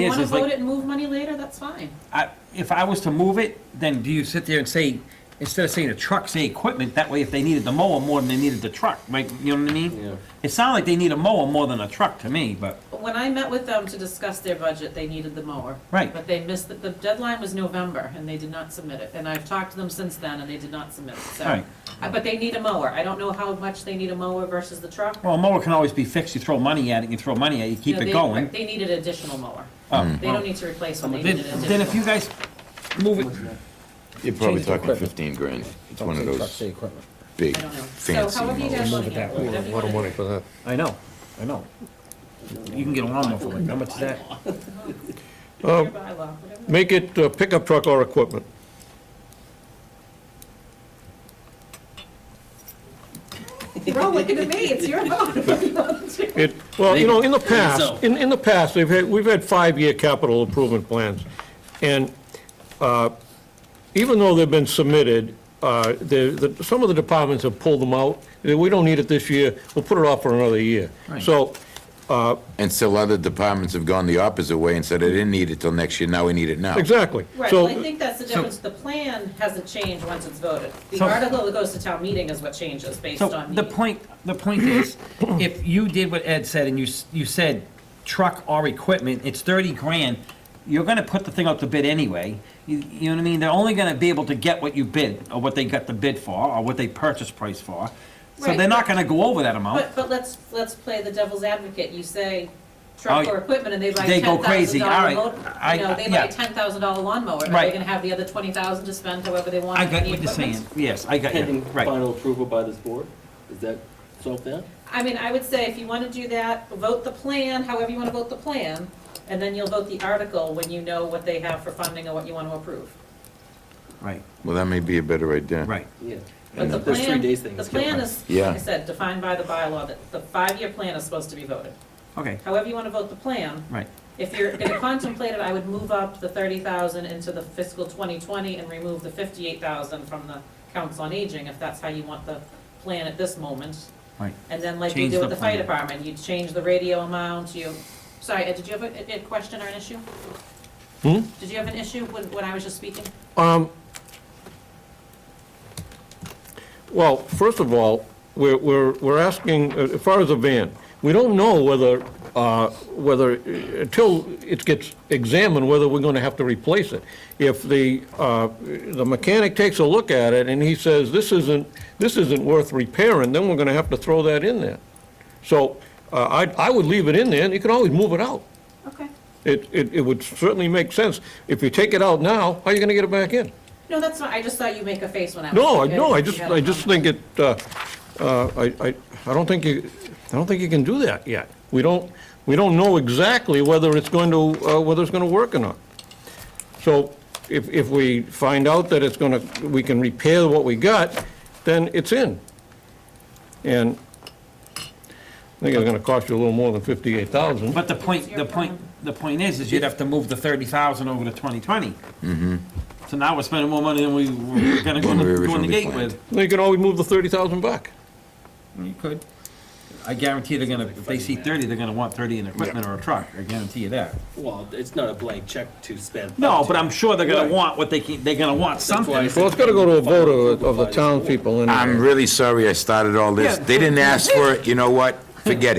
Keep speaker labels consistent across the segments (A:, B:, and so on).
A: You
B: is,
A: want to
B: is like-
A: vote it and move money later, that's fine.
B: I- If I was to move it, then do you sit there and say, instead of saying a truck, say equipment? That way, if they needed the mower more than they needed the truck, right, you know what I mean?
C: Yeah.
B: It sounded like they need a mower more than a truck to me, but,
A: But When I met with them to discuss their budget, they needed the mower.
B: Right.
A: But they missed, it. the deadline was November, and they did not submit it. And I've talked to them since then, and they did not submit it, so.
B: Right.
A: Uh, But they need a mower. I don't know how much they need a mower versus the truck.
B: well, a mower can always be fixed, you throw money at it, you throw money at it, you keep
A: No,
B: it
A: they-
B: going.
A: They needed additional mower.
B: Oh,
A: They don't need to replace one, they
B: Then,
A: needed additional.
B: then if you guys move it,
D: You're probably
E: Change the
D: talking
E: equipment.
D: fifteen grand. It's
E: Don't
D: one of
E: say trucks, say
D: those
E: equipment.
D: big
A: I don't know. So
D: fancy.
A: however you guys
D: models.
A: want
E: Move
A: to
E: it that
A: handle it.
E: way.
A: whatever you
C: A lot of
A: wanna
C: money for that.
B: I know, I know. You can get a lawnmower for like, how much is that?
A: do. Your bylaw, whatever.
C: Uh, Make it a pickup truck or equipment.
B: Oh.
A: You're all looking at me, it's your vote. What do you want to do?
C: It, well, you know, in the
B: So-
C: past, in, in the past, we've had, we've had five-year capital improvement plans. And uh, even though they've been submitted, uh, the, the, some of the departments have pulled them out. They- We don't need it this year, we'll put it off for another year.
B: Right.
C: So,
D: And still other departments have gone the opposite way and said, I didn't need it till next year, now we need it now.
C: exactly.
A: Right,
C: So
A: well, I think that's the difference, the plan hasn't changed once it's voted. The
B: So-
A: article that goes to town meeting is what changes based
B: So
A: on
B: the
A: need.
B: point, the point is, if you did what Ed said and you, s- you said truck or equipment, it's thirty grand, you're gonna put the thing out to bid anyway. You, you know what I mean? They're only gonna be able to get what you bid, or what they got the bid for, or what they purchase price for. So they're
A: Right,
B: not
A: but-
B: gonna go over that amount.
A: But, but let's, let's play the devil's advocate, you say
B: Oh,
A: truck
B: yeah.
A: or equipment and they buy
B: They
A: ten
B: go
A: thousand
B: crazy. All
A: dollar
B: right.
A: mower.
B: I-
A: You know, they
B: yeah.
A: buy ten thousand dollar lawnmower, are they
B: Right.
A: gonna have the other twenty thousand to spend however they want
B: I
A: on
B: got
A: the
B: what you're saying,
A: equipment?
B: yes, I got you,
F: Pending
B: right.
F: final approval by this board? Is that solved now?
A: I mean, I would say if you wanna do that, vote the plan, however you wanna vote the plan, and then you'll vote the article when you know what they have for funding and what you wanna approve.
B: Right,
D: Well, that may be a better idea.
B: right.
F: Yeah.
A: But the
F: Those three
A: plan,
F: days thing
A: the
F: is killing
A: plan
F: us.
A: is,
D: Yeah.
A: like I said, defined by the bylaw, that the five-year plan is supposed to be voted.
B: Okay,
A: However you want to vote the plan,
B: right.
A: if you're going to contemplate it, I would move up the thirty thousand into the fiscal twenty twenty and remove the fifty-eight thousand from the council on aging, if that's how you want the plan at this moment.
B: Right.
A: And then like you
B: Change
A: do
B: the
A: with the fire
B: plan.
A: department, you change the radio amount, you, sorry, Ed, did you have a, a a question or an issue?
C: Hmm?
A: Did you have an issue when, when I was just speaking?
C: Um, Well, first of all, we're, we're we're asking, uh, as far as a van, we don't know whether, uh, whether, uh, until it gets examined, whether we're going to have to replace it. If the, uh, the mechanic takes a look at it and he says, this isn't, this isn't worth repairing, then we're going to have to throw that in there. So uh, I, I would leave it in there, and you can always move it out.
A: Okay.
C: It, it it would certainly make sense. If you take it out now, how are you going to get it back in?
A: No, that's not, I just thought you make a face when I was.
C: No, I,
A: speaking.
C: no, I
A: You
C: just,
A: had a
C: I just
A: comment.
C: think it, uh, uh, I, I, I don't think you, I don't think you can do that yet. We don't, we don't know exactly whether it's going to, uh, whether it's gonna work or not. So if, if we find out that it's gonna, we can repair what we got, then it's in. And I think it's gonna cost you a little more than fifty-eight thousand.
B: But the point, the point, the point is, is you'd have to move the thirty thousand over to twenty So now we're spending more money than we were gonna go in the- go in
D: Than Mm-hmm. we
B: the
D: originally
B: gate
D: planned.
B: with.
C: You can always move the thirty thousand back.
B: You could. I guarantee they're gonna, if they see thirty, they're gonna want thirty in equipment or a truck, I guarantee you that.
F: Well, it's not a blank check to spend.
B: No, but I'm sure they're gonna
F: Right.
B: want what they can, they're gonna want
F: why I
B: something.
F: said-
C: Well, it's gotta go to a vote of, of the townspeople and.
D: I'm really sorry I started all this.
B: Yeah.
D: They didn't ask for it, you know what? Forget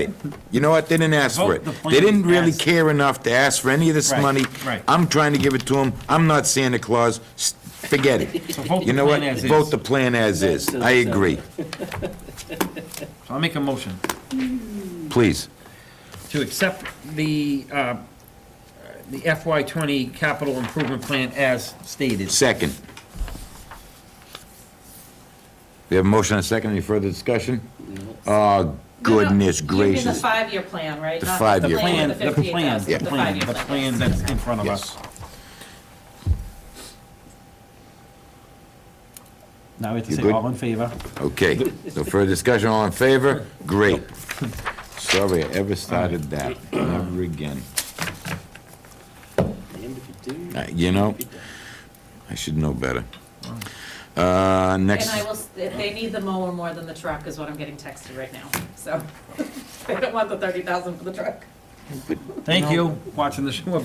D: it. You know what? They didn't ask for it.
B: Vote the plan
D: They didn't really
B: as-
D: care enough to ask for any of this
B: Right,
D: money.
B: right.
D: I'm trying to give it to them. I'm not Santa Claus. S- Forget it.
B: So vote the
D: You know what?
B: plan as is.
D: Vote the plan as is. I agree.
B: I'll make a motion
D: Please.
B: to accept the, uh, the FY twenty capital improvement plan as stated.
D: Second. We have a motion and a second. Any further discussion? Oh,
A: No, no,
D: goodness
A: you mean the
D: gracious.
A: five-year plan, right?
D: The
A: Not
D: five-year
B: Plan,
A: with
B: the plan,
A: $58,000,
B: the plan, the plan that's in front of us.
D: Yes.
B: Now we have to
D: You
B: say
D: good?
B: all in favor.
D: Okay. No further discussion. All in favor? Great. Sorry I ever started that. Never again.
F: Damned if you do.
D: Uh, You know, I should know better. Uh,
A: And
D: next,
A: I will, s- if they need the mower more than the truck is what I'm getting texted right now, so. They don't want the thirty thousand for the truck.
B: Thank you, watching the show.